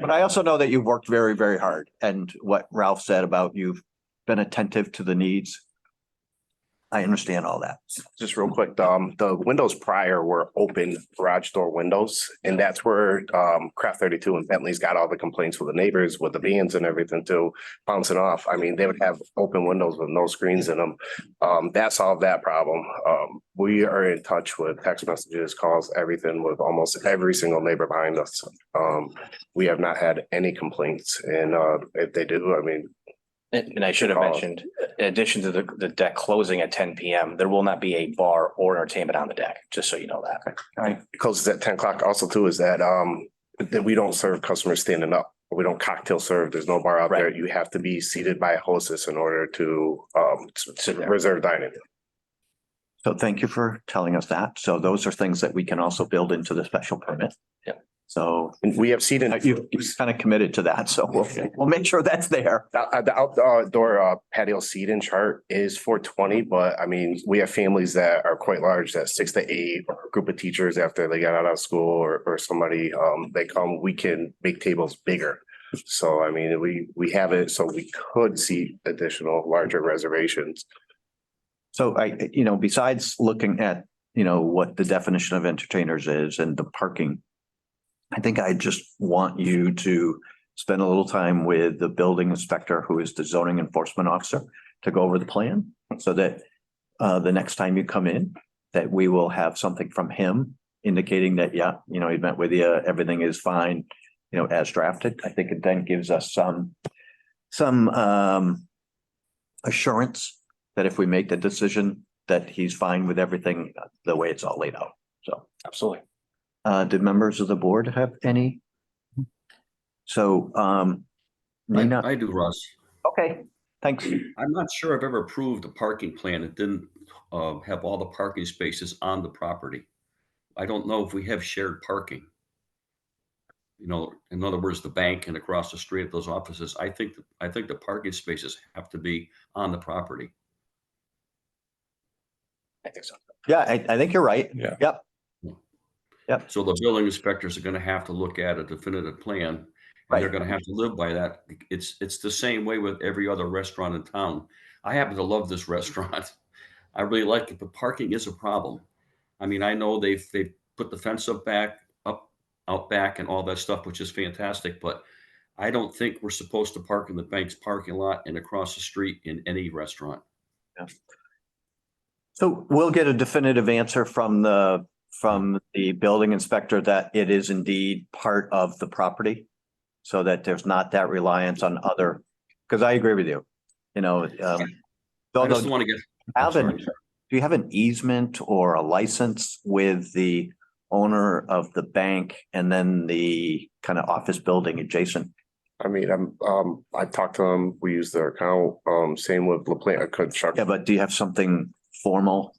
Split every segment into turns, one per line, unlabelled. But I also know that you've worked very, very hard and what Ralph said about you've been attentive to the needs. I understand all that.
Just real quick, um, the windows prior were open garage door windows, and that's where, um, Craft thirty-two and Bentley's got all the complaints with the neighbors, with the vans and everything too, bouncing off. I mean, they would have open windows with no screens in them. Um, that solved that problem. Um, we are in touch with text messages, calls, everything with almost every single neighbor behind us. Um, we have not had any complaints, and, uh, if they do, I mean,
And and I should have
Call.
mentioned, in addition to the, the deck closing at ten PM, there will not be a bar or entertainment on the deck, just so you know that.
It closes at ten o'clock also too is that um that we don't serve customers standing up. We don't cocktail serve. There's no bar out there.
Right.
You have to be seated by a hostess in order to um s- s-
Sit there.
reserve dining.
So thank you for telling us that. So those are things that we can also build into the special permit.
Yeah.
So
And we have seating.
uh, you've kind of committed to that, so we'll, we'll make sure that's there.
The uh, the outdoor uh, patio seating chart is four twenty, but I mean, we have families that are quite large, that six to eight, or a group of teachers after they got out of school or or somebody, um, they come, we can make tables bigger. So I mean, we we have it, so we could see additional larger reservations.
So I, you know, besides looking at, you know, what the definition of entertainers is and the parking. I think I just want you to spend a little time with the building inspector, who is the zoning enforcement officer, to go over the plan so that. Uh, the next time you come in, that we will have something from him indicating that, yeah, you know, he met with you, everything is fine. You know, as drafted, I think it then gives us some, some um. Assurance that if we make the decision, that he's fine with everything the way it's all laid out. So,
Absolutely.
uh, did members of the board have any? So, um,
I,
Nina,
I do, Russ.
okay, thanks.
I'm not sure I've ever approved a parking plan that didn't uh, have all the parking spaces on the property. I don't know if we have shared parking. You know, in other words, the bank and across the street of those offices, I think, th- I think the parking spaces have to be on the property.
I think so.
Yeah, I, I think you're right.
Yeah.
Yep,
So the building inspectors are gonna have to look at a definitive plan. And they're
right.
gonna have to live by that. It's, it's the same way with every other restaurant in town. I happen to love this restaurant. I really like it, but parking is a problem. I mean, I know they've, they've put the fence up back, up, out back and all that stuff, which is fantastic, but I don't think we're supposed to park in the bank's parking lot and across the street in any restaurant.
So we'll get a definitive answer from the, from the building inspector that it is indeed part of the property. So that there's not that reliance on other, because I agree with you, you know, um.
I
although-
just don't want to get. I'm
have an,
sorry.
do you have an easement or a license with the owner of the bank and then the kind of office building adjacent?
I mean, I'm, um, I talked to them, we use their account, um, same with La Plata
Yeah,
Construction.
but do you have something formal?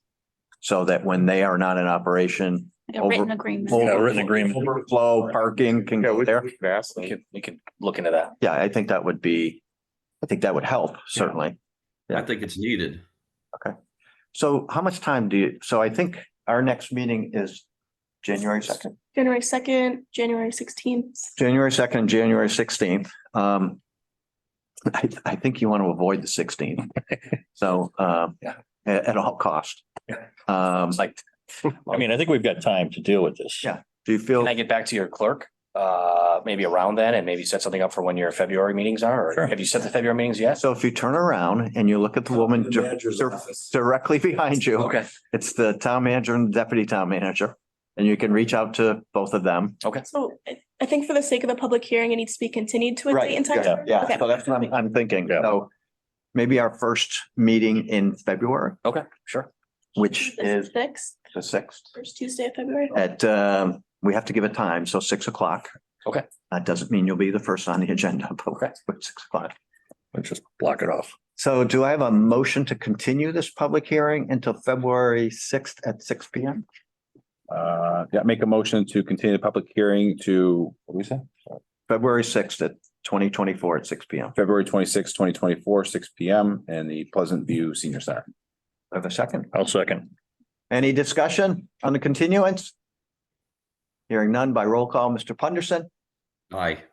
So that when they are not in operation.
A written
over-
agreement.
over-
written agreement.
Overflow parking can
Yeah,
go
we
there.
we could ask
We
them.
could, we could look into that.
Yeah, I think that would be, I think that would help certainly.
I think it's needed.
So how much time do you, so I think our next meeting is January second?
January second, January sixteenth.
January second, January sixteenth. Um, I, I think you want to avoid the sixteenth. So, um,
Yeah.
at, at all cost. Um,
It's like,
I mean, I think we've got time to deal with this.
Yeah. do you feel,
can I get back to your clerk? Uh, maybe around then and maybe set something up for when your February meetings are, or
Sure.
have you set the February meetings yet?
so if you turn around and you look at the woman dir- dir- directly behind you,
Okay,
it's the town manager and deputy town manager. And you can reach out to both of them.
okay.
So I- I think for the sake of the public hearing, it needs to be continued to a
Right,
date and time.
yeah,
certain?
Yeah,
Okay.
so that's what I'm, I'm thinking.
Yeah.
So maybe our first meeting in February,
Okay, sure.
which
This
is
is Sixth,
the sixth.
first Tuesday of February.
at, um, we have to give it time, so six o'clock.
Okay.
That doesn't mean you'll be the first on the agenda, but
Okay.
but six o'clock.
Let's just block it off.
So do I have a motion to continue this public hearing until February sixth at six P M?
Uh, yeah, make a motion to continue the public hearing to, what do we say?
February sixth at twenty twenty-four at six P M.
February twenty sixth, twenty twenty four, six P M and the Pleasant View Senior Center.
I have a second.
I'll second.
Any discussion on the continuance? Hearing none by roll call, Mr. Punderson,
Aye.